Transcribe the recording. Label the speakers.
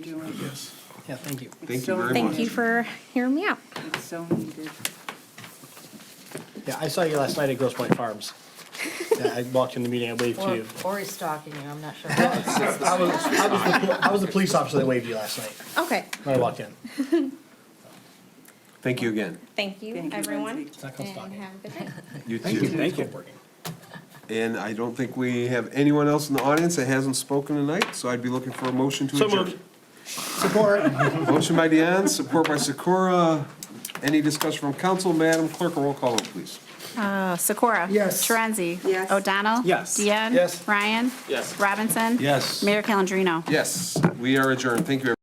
Speaker 1: doing.
Speaker 2: Yes.
Speaker 3: Yeah, thank you.
Speaker 1: It's
Speaker 2: Thank you
Speaker 1: so
Speaker 2: very
Speaker 4: Thank
Speaker 2: much.
Speaker 4: you for hearing me out.
Speaker 1: needed. It's so needed.
Speaker 3: Yeah, I saw you last night at Gross Point Farms. Yeah, I walked in the meeting, I waved to
Speaker 5: Or,
Speaker 3: you.
Speaker 5: or he's stalking you, I'm not sure. That's
Speaker 3: I was, I was the- I was the police officer that waved you last night
Speaker 4: Okay,
Speaker 3: when I walked in.
Speaker 2: Thank you again.
Speaker 4: thank you,
Speaker 1: Thank you,
Speaker 4: everyone.
Speaker 1: Lindsay.
Speaker 3: It's not
Speaker 4: And
Speaker 3: called stalking.
Speaker 4: have a good night.
Speaker 2: You
Speaker 3: Thank you,
Speaker 2: too.
Speaker 3: thank you. Working.
Speaker 2: And I don't think we have anyone else in the audience that hasn't spoken tonight, so I'd be looking for a motion to
Speaker 3: So
Speaker 2: adjourn.
Speaker 3: moved. Support.
Speaker 2: Motion by Deanne, support by Sakura. Any discussion from council? Madam Clerk, a roll call, vote, please.
Speaker 6: Uh, Sikora?
Speaker 3: Yes.
Speaker 6: Torenzi?
Speaker 1: Yes.
Speaker 6: O'Donnell?
Speaker 3: Yes.
Speaker 6: Deanne?
Speaker 3: Yes.
Speaker 6: Ryan? Yes. Robinson?
Speaker 2: Yes.
Speaker 6: Mayor Calendino?
Speaker 2: Yes, we are adjourned. Thank you. everyone.